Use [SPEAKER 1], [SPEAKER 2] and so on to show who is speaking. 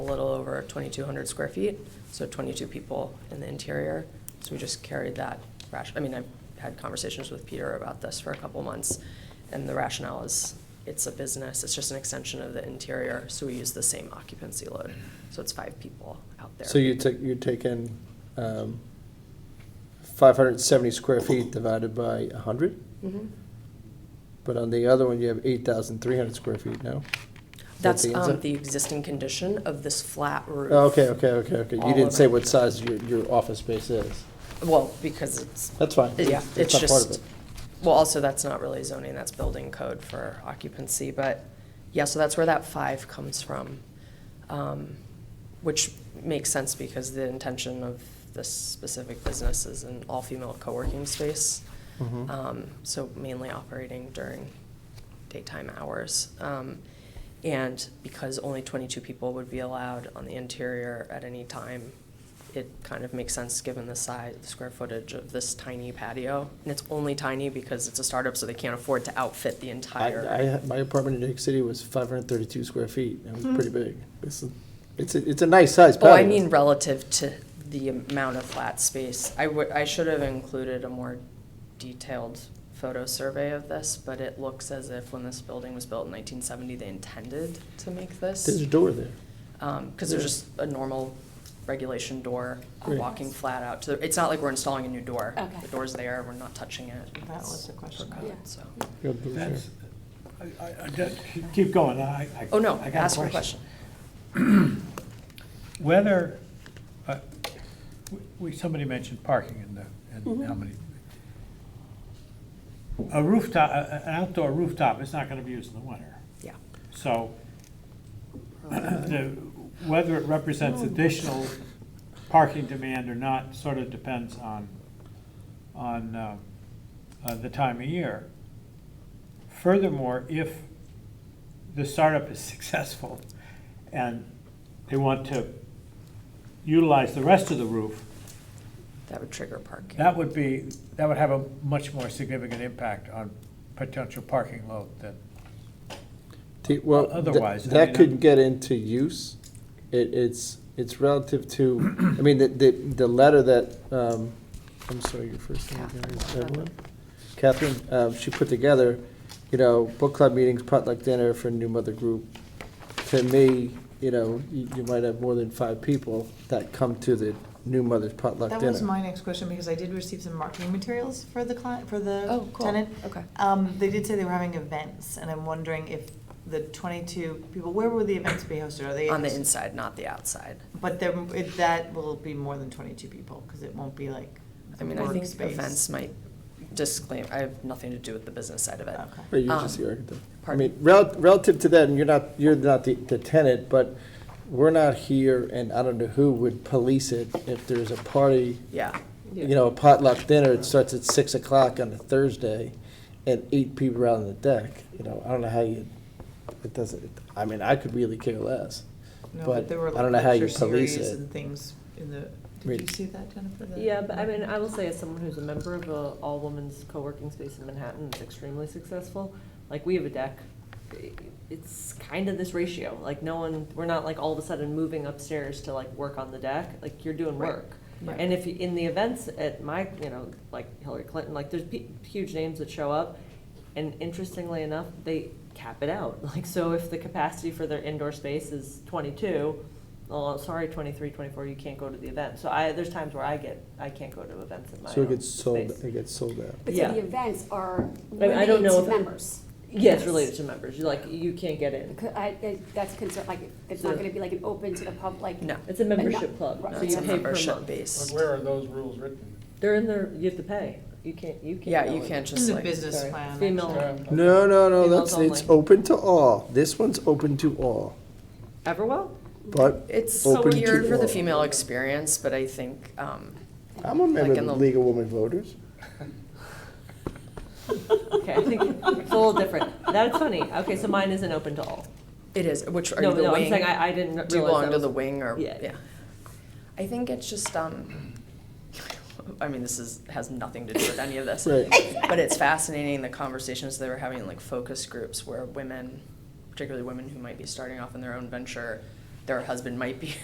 [SPEAKER 1] little over 2,200 square feet, so 22 people in the interior. So we just carried that ration, I mean, I've had conversations with Peter about this for a couple months, and the rationale is, it's a business, it's just an extension of the interior, so we use the same occupancy load. So it's five people out there.
[SPEAKER 2] So you take, you take in um, 570 square feet divided by 100?
[SPEAKER 1] Mhm.
[SPEAKER 2] But on the other one, you have 8,300 square feet now?
[SPEAKER 1] That's
[SPEAKER 2] the
[SPEAKER 1] um,
[SPEAKER 2] inside?
[SPEAKER 1] the existing condition of this flat roof.
[SPEAKER 2] Oh, Okay, okay, okay, okay.
[SPEAKER 1] All
[SPEAKER 2] You didn't
[SPEAKER 1] of
[SPEAKER 2] say
[SPEAKER 1] it.
[SPEAKER 2] what size your, your office space is.
[SPEAKER 1] Well, because it's,
[SPEAKER 2] That's fine.
[SPEAKER 1] Yeah, it's
[SPEAKER 2] not part of
[SPEAKER 1] just-
[SPEAKER 2] it.
[SPEAKER 1] well, also, that's not really zoning, that's building code for occupancy, but, yeah, so that's where that five comes from. um, Which makes sense because the intention of this specific business is an all-female co-working space.
[SPEAKER 2] Mhm.
[SPEAKER 1] um, so mainly operating during daytime hours. Um, and because only 22 people would be allowed on the interior at any time, it kind of makes sense given the size, the square footage of this tiny patio. And it's only tiny because it's a startup, so they can't afford to outfit the
[SPEAKER 2] I,
[SPEAKER 1] entire.
[SPEAKER 2] I, my apartment in New York City was 532 square feet. It was pretty big. This is, it's, a- it's a nice size patio.
[SPEAKER 1] Oh, Mm-hmm. I mean relative to the amount of flat space. I would, I should have included a more detailed photo survey of this, but it looks as if when this building was built in nineteen seventy, they intended to make
[SPEAKER 2] There's
[SPEAKER 1] this.
[SPEAKER 2] a door there.
[SPEAKER 1] Um, cause there's just a normal regulation door,
[SPEAKER 2] Great.
[SPEAKER 1] walking flat out to, the- it's not like we're installing a new door.
[SPEAKER 3] Okay.
[SPEAKER 1] The door's there, we're not touching it.
[SPEAKER 4] That was the question.
[SPEAKER 1] Per code,
[SPEAKER 3] Yeah.
[SPEAKER 1] So,
[SPEAKER 2] You have a door there.
[SPEAKER 5] That's, I, I- I, don't- keep going, I, I.
[SPEAKER 1] oh no,
[SPEAKER 5] I got
[SPEAKER 1] ask your question.
[SPEAKER 5] Whether, uh, we, somebody mentioned parking in the,
[SPEAKER 1] Mm-hmm.
[SPEAKER 5] and how many. A rooftop, a- an outdoor rooftop is not gonna be used in the winter,
[SPEAKER 1] Yeah.
[SPEAKER 5] so the, whether it represents additional parking demand or not sort of depends on, on, uh, uh, the time of year. Furthermore, if the startup is successful and they want to utilize the rest of the roof,
[SPEAKER 1] That would trigger parking.
[SPEAKER 5] that would be, that would have a much more significant impact on potential parking load than,
[SPEAKER 2] T- Well,
[SPEAKER 5] O-
[SPEAKER 2] tha-
[SPEAKER 5] otherwise, I
[SPEAKER 2] that
[SPEAKER 5] mean,
[SPEAKER 2] could
[SPEAKER 5] I'm-
[SPEAKER 2] get into use. It, it's, it's relative to, I mean, the, the, the letter that, um, I'm sorry, your first name again is
[SPEAKER 1] Catherine.
[SPEAKER 2] Evelyn? Catherine, um, she put together, you know, book club meetings, potluck dinner for a new mother group. To me, you know, you, you might have more than five people that come to the new mother's potluck
[SPEAKER 4] That was
[SPEAKER 2] dinner.
[SPEAKER 4] my next question, because I did receive some marketing materials for the client, for the
[SPEAKER 1] Oh, cool.
[SPEAKER 4] tenant.
[SPEAKER 1] Okay.
[SPEAKER 4] Um, they did say they were having events, and I'm wondering if the twenty-two people, where will the events be hosted? Are they?
[SPEAKER 1] On the inside, not the outside.
[SPEAKER 4] But there, it- that will be more than twenty-two people, because it won't be like
[SPEAKER 1] I
[SPEAKER 4] the
[SPEAKER 1] mean, I think
[SPEAKER 4] workspace.
[SPEAKER 1] events might disclaim, I have nothing to do with the business side of it.
[SPEAKER 4] Okay.
[SPEAKER 2] Or you're
[SPEAKER 1] um,
[SPEAKER 2] just the architect. I
[SPEAKER 1] pardon?
[SPEAKER 2] mean, rel- relative to that, and you're not, you're not the, the tenant, but we're not here, and I don't know who would police it if there's a party,
[SPEAKER 1] Yeah,
[SPEAKER 2] you know, a potluck dinner, it starts at six o'clock on a Thursday, and eight people are out on the deck, you know, I don't know how you, it doesn't, I mean, I could really care less.
[SPEAKER 4] No,
[SPEAKER 2] But
[SPEAKER 4] there were,
[SPEAKER 2] I
[SPEAKER 4] like,
[SPEAKER 2] don't know how you
[SPEAKER 4] lecture
[SPEAKER 2] police
[SPEAKER 4] series
[SPEAKER 2] it.
[SPEAKER 4] And things in the,
[SPEAKER 2] Right.
[SPEAKER 4] did you see that, Jennifer? the-
[SPEAKER 6] Yeah, but I mean, I will say as someone who's a member of a all-women's co-working space in Manhattan, it's extremely successful. Like, we have a deck, it's kind of this ratio, like, no one, we're not like all of a sudden moving upstairs to like work on the deck, like, you're doing
[SPEAKER 1] Right.
[SPEAKER 6] work.
[SPEAKER 4] Right.
[SPEAKER 6] And if, you- in the events at my, you know, like Hillary Clinton, like, there's pe- huge names that show up, and interestingly enough, they cap it out. Like, so if the capacity for their indoor space is twenty-two, oh, sorry, 23, 24, you can't go to the event. So I, there's times where I get, I can't go to events at my
[SPEAKER 2] So
[SPEAKER 6] own
[SPEAKER 2] it gets sold,
[SPEAKER 6] space.
[SPEAKER 2] it gets sold out.
[SPEAKER 3] But
[SPEAKER 6] Yeah.
[SPEAKER 3] so the events are
[SPEAKER 6] mean, I
[SPEAKER 3] limited
[SPEAKER 6] don't know
[SPEAKER 3] to
[SPEAKER 6] if it-
[SPEAKER 3] members.
[SPEAKER 6] Yeah, it's related to members, you like, you can't get in.
[SPEAKER 3] Because I, I- that's concerned, like, it's not
[SPEAKER 6] So-
[SPEAKER 3] gonna be like an open to the public, like.
[SPEAKER 1] no.
[SPEAKER 6] It's a membership
[SPEAKER 3] no,
[SPEAKER 6] club,
[SPEAKER 3] right.
[SPEAKER 6] so
[SPEAKER 1] It's
[SPEAKER 6] you
[SPEAKER 1] a
[SPEAKER 6] pay per
[SPEAKER 1] membership
[SPEAKER 6] month.
[SPEAKER 1] based.
[SPEAKER 7] Where are those rules written?
[SPEAKER 6] They're in there, you have to pay. You can't, you can't.
[SPEAKER 1] Yeah,
[SPEAKER 6] go
[SPEAKER 1] you
[SPEAKER 6] in.
[SPEAKER 1] can't
[SPEAKER 4] In
[SPEAKER 1] just
[SPEAKER 4] the
[SPEAKER 1] like,
[SPEAKER 4] business
[SPEAKER 6] sorry,
[SPEAKER 4] plan.
[SPEAKER 6] female-
[SPEAKER 4] actually.
[SPEAKER 2] No, no, no,
[SPEAKER 6] Females
[SPEAKER 2] that's, it's
[SPEAKER 6] only.
[SPEAKER 2] open to all, this one's open to all,
[SPEAKER 6] Everwell?
[SPEAKER 2] but
[SPEAKER 1] it's so
[SPEAKER 2] open to all.
[SPEAKER 1] weird for the female experience, but I think, um,
[SPEAKER 2] I'm a member
[SPEAKER 1] Like
[SPEAKER 2] of
[SPEAKER 1] in
[SPEAKER 2] the
[SPEAKER 1] the-
[SPEAKER 2] League of Women Voters.
[SPEAKER 6] Okay, I think it's a little different. That's funny. Okay, so mine isn't open to all.
[SPEAKER 1] it is, which, are
[SPEAKER 6] No,
[SPEAKER 1] you the
[SPEAKER 6] no, I'm
[SPEAKER 1] wing?
[SPEAKER 6] saying I, I didn't realize
[SPEAKER 1] Do you belong
[SPEAKER 6] that
[SPEAKER 1] to
[SPEAKER 6] was-
[SPEAKER 1] the wing or,
[SPEAKER 6] Yeah.
[SPEAKER 1] yeah. I think it's just, um, I mean, this is, has nothing to do with any of this.
[SPEAKER 2] Right.
[SPEAKER 1] But it's fascinating, the conversations they were having, in, like focus groups where women, particularly women who might be starting off in their own venture, their husband might be